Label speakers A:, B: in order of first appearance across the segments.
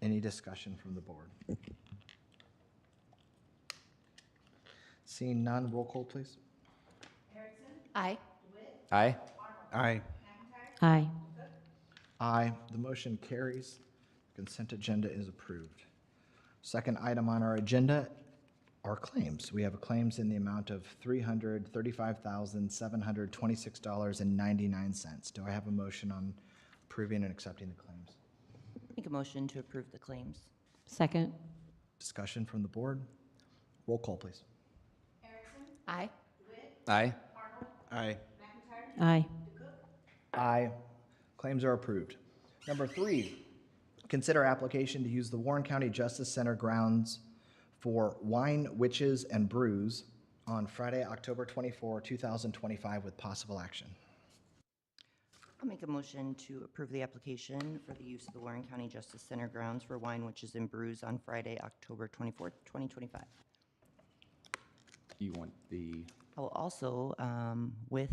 A: Any discussion from the board? Seeing none, roll call, please.
B: Aye.
C: Aye.
A: Aye.
B: Aye.
A: Aye. The motion carries. Consent agenda is approved. Second item on our agenda are claims. We have claims in the amount of $335,726.99. Do I have a motion on approving and accepting the claims?
D: Make a motion to approve the claims.
B: Second.
A: Discussion from the board? Roll call, please.
B: Aye.
C: Aye.
A: Aye.
B: Aye.
A: Aye. Claims are approved. Number three, consider application to use the Warren County Justice Center grounds for Wine Witches and Brews on Friday, October 24, 2025, with possible action.
D: I'll make a motion to approve the application for the use of the Warren County Justice Center grounds for wine, witches, and brews on Friday, October 24th, 2025.
C: You want the,
D: I will also, um, with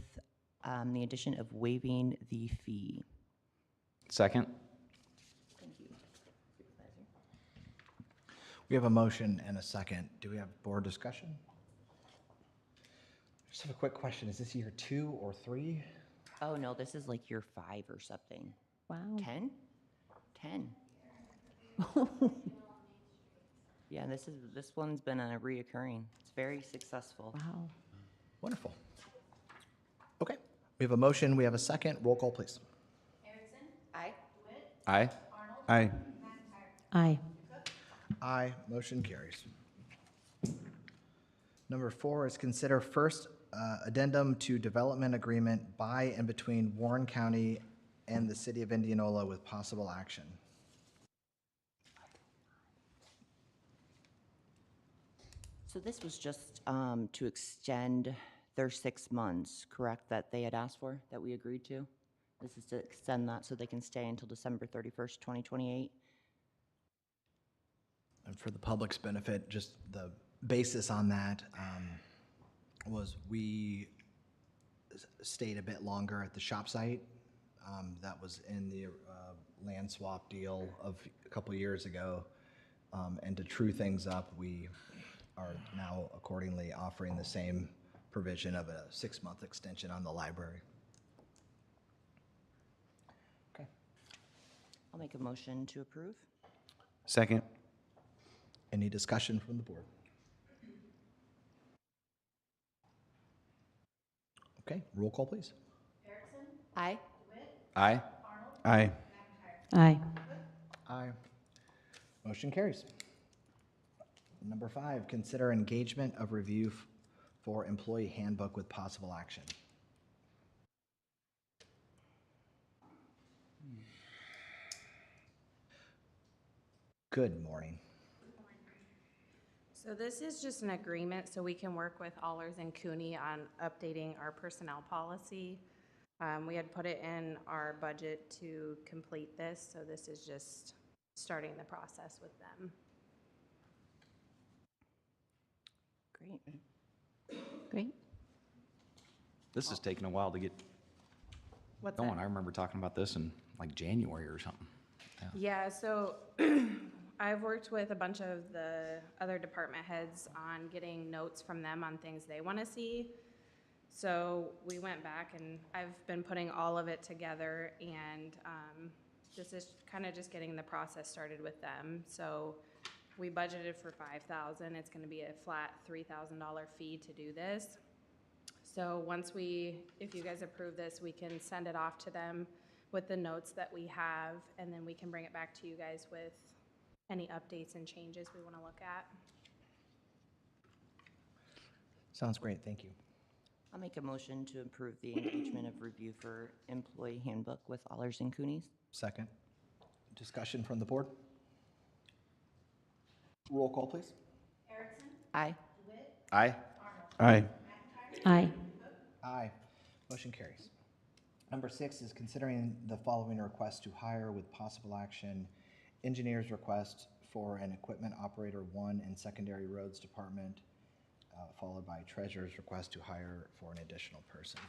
D: um, the addition of waiving the fee.
C: second?
A: We have a motion and a second. Do we have board discussion? Just have a quick question. Is this year two or three?
D: Oh, no, this is like year five or something.
B: Wow.
D: 10? 10. Yeah, this is, this one's been a reoccurring. It's very successful.
B: Wow.
A: Wonderful. Okay, we have a motion, we have a second. Roll call, please.
D: Aye.
C: Aye.
A: Aye.
B: Aye.
A: Aye, motion carries. Number four is consider first uh, addendum to development agreement by and between Warren County and the City of Indianola with possible action.
D: So this was just um, to extend their six months, correct, that they had asked for, that we agreed to? This is to extend that so they can stay until December 31st, 2028?
A: And for the public's benefit, just the basis on that um, was we s- stayed a bit longer at the shop site. Um, That was in the uh, land swap deal of a couple years ago. Um, And to true things up, we are now accordingly offering the same provision of a six-month extension on the library.
D: I'll make a motion to approve.
C: Second?
A: Any discussion from the board? Okay, roll call, please.
B: Aye.
C: Aye. Aye.
B: Aye.
A: Aye. Motion carries. Number five, consider engagement of review f- for employee handbook with possible action. Good morning.
E: So this is just an agreement, so we can work with Allers and Cooney on updating our personnel policy. Um, we had put it in our budget to complete this, so this is just starting the process with them.
D: Great.
B: Great.
C: This is taking a while to get
E: What's that?
C: going. I remember talking about this in like January or something.
E: Yeah, so I've worked with a bunch of the other department heads on getting notes from them on things they want to see. So we went back and I've been putting all of it together and um, this is kind of just getting the process started with them. So we budgeted for five thousand. It's going to be a flat three thousand dollar fee to do this. So once we, if you guys approve this, we can send it off to them with the notes that we have, and then we can bring it back to you guys with any updates and changes we want to look at.
A: Sounds great, thank you.
D: I'll make a motion to approve the engagement of review for employee handbook with Allers and Coonies.
A: Second. Discussion from the board? Roll call, please.
D: Aye.
C: Aye.
A: Aye.
B: Aye.
A: Aye. Motion carries. Number six is considering the following request to hire with possible action. Engineer's request for an equipment operator one in secondary roads department, uh, followed by treasurer's request to hire for an additional person.